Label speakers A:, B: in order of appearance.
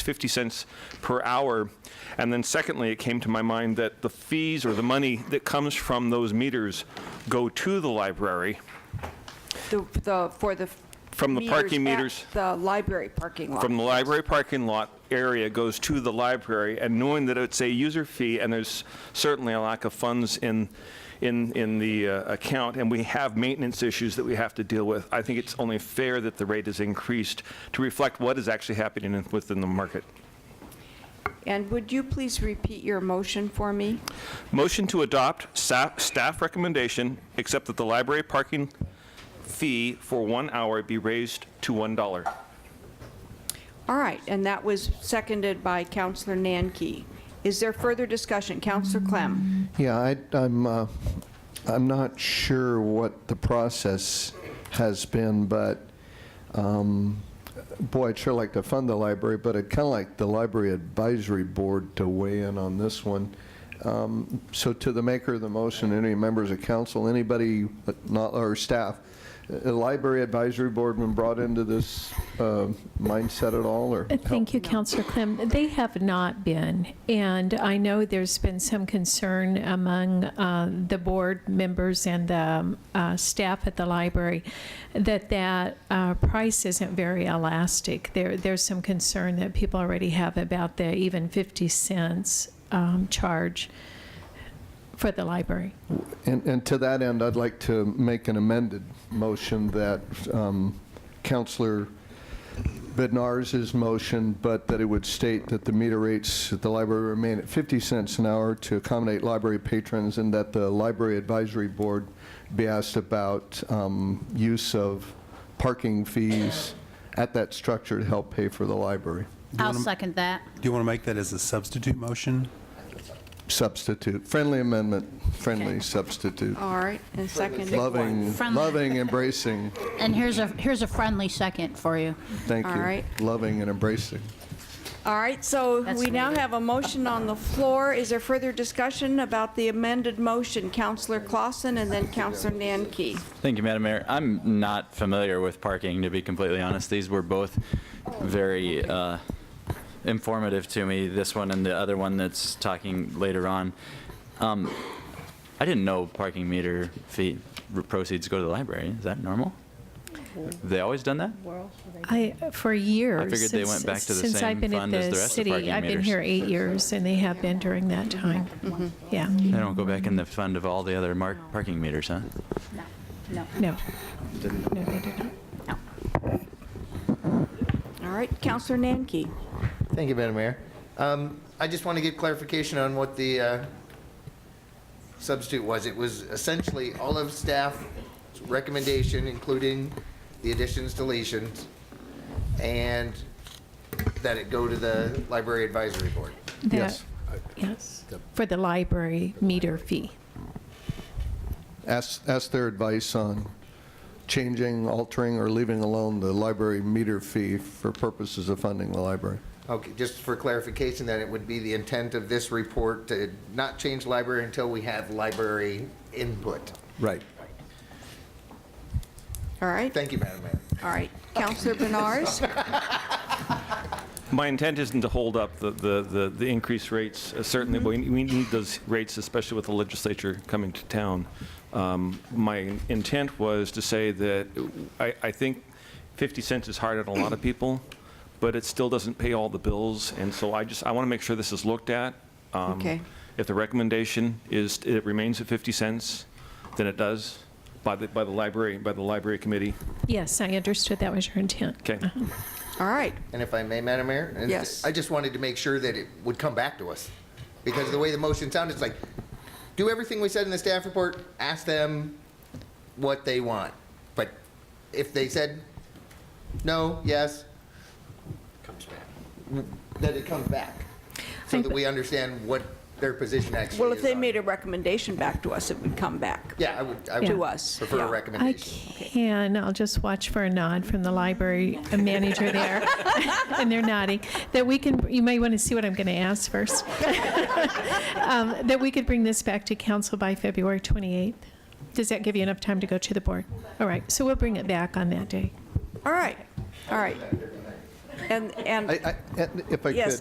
A: 50 cents per hour. And then secondly, it came to my mind that the fees or the money that comes from those meters go to the library
B: The, the, for the.
A: From the parking
B: at
A: meters.
B: The library parking lot.
A: from the library parking lot area goes to the library, and knowing that it's a user fee, and there's certainly a lack of funds in, in, in the uh, account, and we have maintenance issues that we have to deal with, I think it's only fair that the rate is increased to reflect what is actually happening in- within the market.
B: And would you please repeat your motion for me?
A: Motion to adopt sa- staff recommendation, except that the library parking fee for one hour be raised to $1.
B: All right, and that was seconded by Counselor Nanki. Is there further discussion? Counselor Clem?
C: Yeah, I, I'm, uh, I'm not sure what the process has been, but, um, boy, I'd sure like to fund the library, but I'd kind of like the library advisory board to weigh in on this one. Um, So to the maker of the motion, any members of council, anybody, but not, or staff, a library advisory board been brought into this uh, mindset at all, or?
D: Uh, Thank you, Councillor Clem. They have not been, and I know there's been some concern among uh, the board members and the um, uh, staff at the library that that uh, price isn't very elastic. There, there's some concern that people already have about the even 50 cents um, charge for the library.
C: And, and to that end, I'd like to make an amended motion that um, Counselor Bednarz's motion, but that it would state that the meter rates at the library remain at 50 cents an hour to accommodate library patrons, and that the library advisory board be asked about um, use of parking fees at that structure to help pay for the library.
E: I'll second that.
F: Do you want to make that as a substitute motion?
C: Substitute, friendly amendment, friendly
E: Okay.
C: substitute.
B: All right, and seconded.
C: Loving,
E: Friendly.
C: loving, embracing.
E: And here's a, here's a friendly second for you.
C: Thank
B: All
C: you.
B: right.
C: Loving and embracing.
B: All right, so
E: That's
B: we now
E: needed.
B: have a motion on the floor. Is there further discussion about the amended motion? Counselor Clausen and then Counselor Nanki.
G: Thank you, Madam Mayor. I'm not familiar with parking, to be completely honest. These were both very uh, informative to me, this one and the other one that's talking later on. Um, I didn't know parking meter fee proceeds go to the library. Is that normal? They always done that?
D: I, for years.
G: figured they went
D: since-
G: back to the
D: since I've
G: same
D: been at
G: fund as the rest of
D: city,
G: parking
D: I've been
G: meters.
D: here eight years, and they have been during that time. Yeah,
G: They don't go back in the fund of all the other mark, parking meters, huh?
E: No, no,
D: no. No, they did not.
E: no.
B: All right, Counselor Nanki.
H: Thank you, Madam Mayor. Um, I just want to get clarification on what the uh, substitute was. It was essentially all of staff's recommendation, including the additions, deletions, and that it go to the library advisory board.
D: The-
C: Yes.
D: Yes, for the library meter fee.
C: Ask, ask their advice on changing, altering, or leaving alone the library meter fee for purposes of funding the library.
H: Okay, just for clarification, that it would be the intent of this report to not change library until we have library input.
C: Right.
B: All right,
H: Thank you, Madam Mayor.
B: all right. Counselor Benars?
A: My intent isn't to hold up the, the, the- the increased rates, uh, certainly, we, we need those rates, especially with the legislature coming to town. Um, My intent was to say that I, I think 50 cents is hard on a lot of people, but it still doesn't pay all the bills, and so I just, I want to make sure this is looked at. Um,
B: Okay.
A: If the recommendation is, it remains at 50 cents, then it does, by the, by the library, by the library committee.
D: Yes, I understood that was your intent.
A: Okay.
D: Uh-huh.
B: All right,
H: And if I may, Madam Mayor? and
B: Yes.
H: I just wanted to make sure that it would come back to us, because the way the motion sounded, it's like, do everything we said in the staff report, ask them what they want. But if they said no, yes. Comes back. That it comes back, so
D: I-
H: that we understand what their position actually is.
B: well, if they
H: on
B: made
H: it.
B: a recommendation back to us, it would come back.
H: Yeah, I would, I
D: Yeah.
B: To
H: would
B: us.
H: prefer
B: Yeah.
H: a
B: I
D: I
H: recommendation.
D: can, I'll just watch for a nod from the library manager there, and they're nodding, that we can, you may want to see what I'm going to ask first. Um, That we could bring this back to council by February 28th. Does that give you enough time to go to the board? All right, so we'll bring it back on that day.
B: All right, all right.
C: And, and.
B: I, I, and if I could.
C: Yes,